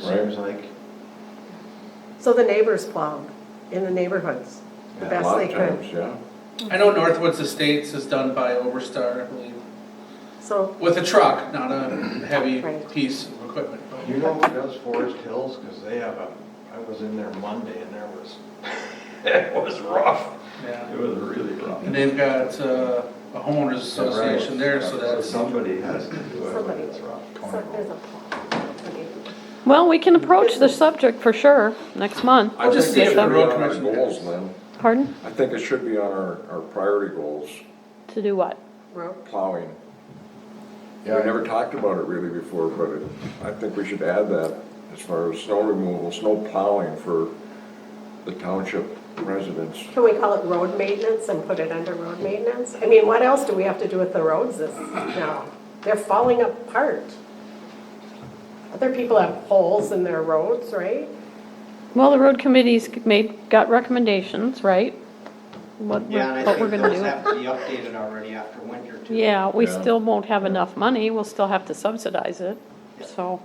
seems like. So the neighbors plowed in the neighborhoods, the Yeah, a best lot they of times, could. Yeah. I know Northwoods Estates is done by Overstar, I believe, So, with a truck, not a heavy Right. piece of equipment. but- You know who does Forest Hills? Because they have a, I was in there Monday and there was, it was rough. Yeah. It was really rough. And they've got uh, a homeowners association there, so that's, Somebody has to do it when Somebody. it's rough. so there's a plow. Well, we can approach the subject for sure next month. I'll just I think see it if should the be road on our commission Goals, has- Lynn. Pardon? I think it should be on our, our priority goals, To do what? Rope. plowing. We Yeah. never talked about it really before, but it- I think we should add that as far as snow removal, snow plowing for the township residents. Can we call it road maintenance and put it under road maintenance? I mean, what else do we have to do with the roads this, now? They're falling apart. Other people have holes in their roads, right? Well, the road committee's made, got recommendations, right? What, Yeah, and we're- I what we're think gonna those do. have to be updated already after winter too. Yeah, we Yeah. still won't have enough money, we'll still have to subsidize it, so.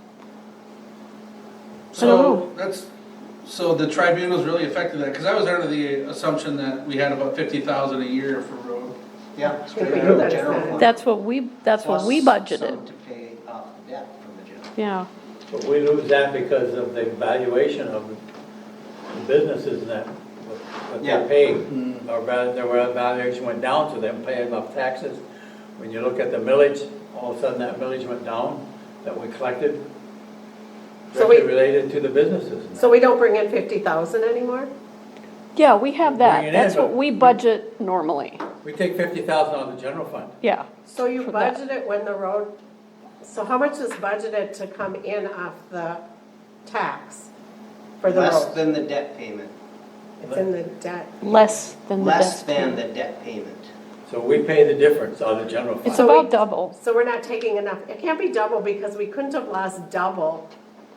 I don't so that's, so the tribunal's really affected that, because I was under the assumption that we had about fifty thousand a year for road. Yeah. think we straight do out that of general instead. fund. That's what we, that's what we Plus some budgeted, to pay off the debt from the general. yeah. But we lose that because of the valuation of the businesses and that, what what Yeah. they Mm. pay. Our val- their valuation went down, so them paying enough taxes. When you look at the millage, all of a sudden that millage went down that we collected So we- directly related to the businesses. and So we don't bring in fifty thousand anymore? Yeah, we have Bring it that, in, that's what but- we budget normally, that. We take fifty thousand out of the general fund. yeah. So you For that. budget it when the road, so how much is budgeted to come in off the tax for the Less road? than the debt payment, It's in the debt. Less than the less best. than the debt payment. So we pay the difference out of the general It's fund. a- So we- about double. So we're not taking enough, it can't be double because we couldn't have lost double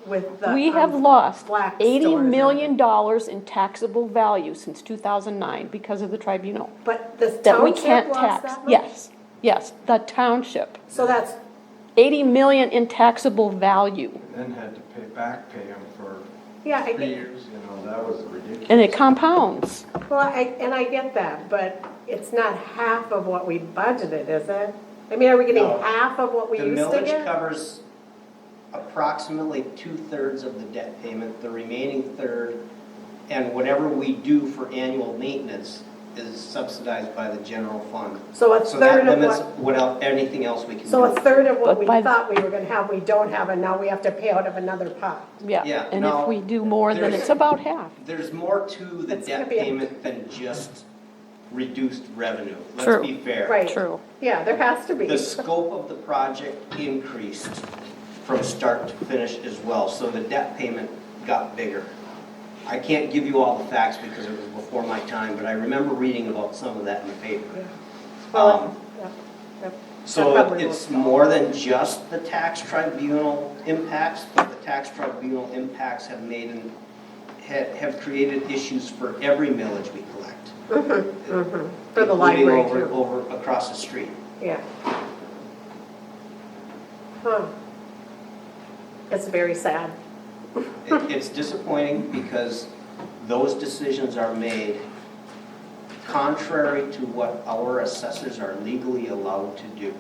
with the. We have um, lost black eighty stores. million dollars in taxable value since two thousand nine because of the tribunal. But the That we township can't lost tax, that much? yes, yes, the township, So that's, eighty million in taxable value. Then had to pay, back pay them for, yeah, I Three get, years. you know, that was ridiculous. And it compounds, well, I, and I get that, but it's not half of what we budgeted, is it? I mean, are we getting No. half of what we The used to millage get? covers approximately two-thirds of the debt payment, the remaining third, and whatever we do for annual maintenance is subsidized by the general fund. So a So that third of limits what? what el, anything else we can do. So a third of what But we by- thought we were gonna have, we don't have, and now we have to pay out of another pot. yeah, Yeah, and if no, we do more, then there's- it's about half. There's more to the It's gonna debt be a- payment than just reduced revenue. True. Let's be fair. Right. True. Yeah, there has to be. The scope of the project increased from start to finish as well, so the debt payment got bigger. I can't give you all the facts because it was before my time, but I remember reading about some of that in the paper. Um, Yeah, yep. That So probably it's will- more than just the tax tribunal impacts, but the tax tribunal impacts have made and ha- have created issues for every millage we collect. For the including library over- too, Over, across the street. yeah. Huh. It's very sad. It- Hmm. It's disappointing because those decisions are made contrary to what our assessors are legally allowed to do.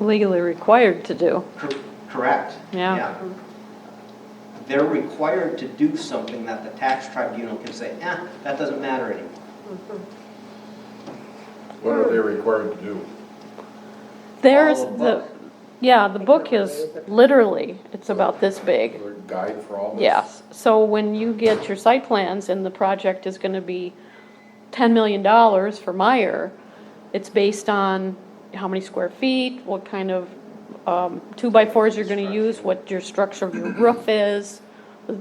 Legally required to do. Cor- Correct? Yeah. They're required to do something that the tax tribunal can say, eh, that doesn't matter anymore. What are they required to do? There's All of the, book. yeah, the book is literally, it's about this big. Their guide for all this? Yes, so when you get your site plans and the project is gonna be ten million dollars for Meyer, it's based on how many square feet, what kind of, um, two-by-fours you're gonna use, what your structure of your roof is,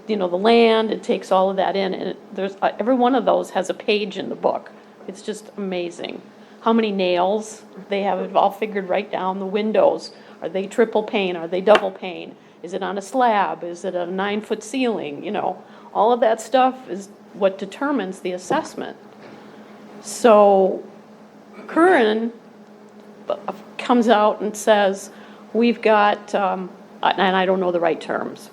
you know, the land, it takes all of that in, and it- there's, uh, every one of those has a page in the book. It's just amazing. How many nails, they have it all figured right down, the windows, are they triple pane, are they double pane? Is it on a slab, is it a nine-foot ceiling, you know? All of that stuff is what determines the assessment. So Curran uh, b- comes out and says, we've got, um, and I don't know the right terms,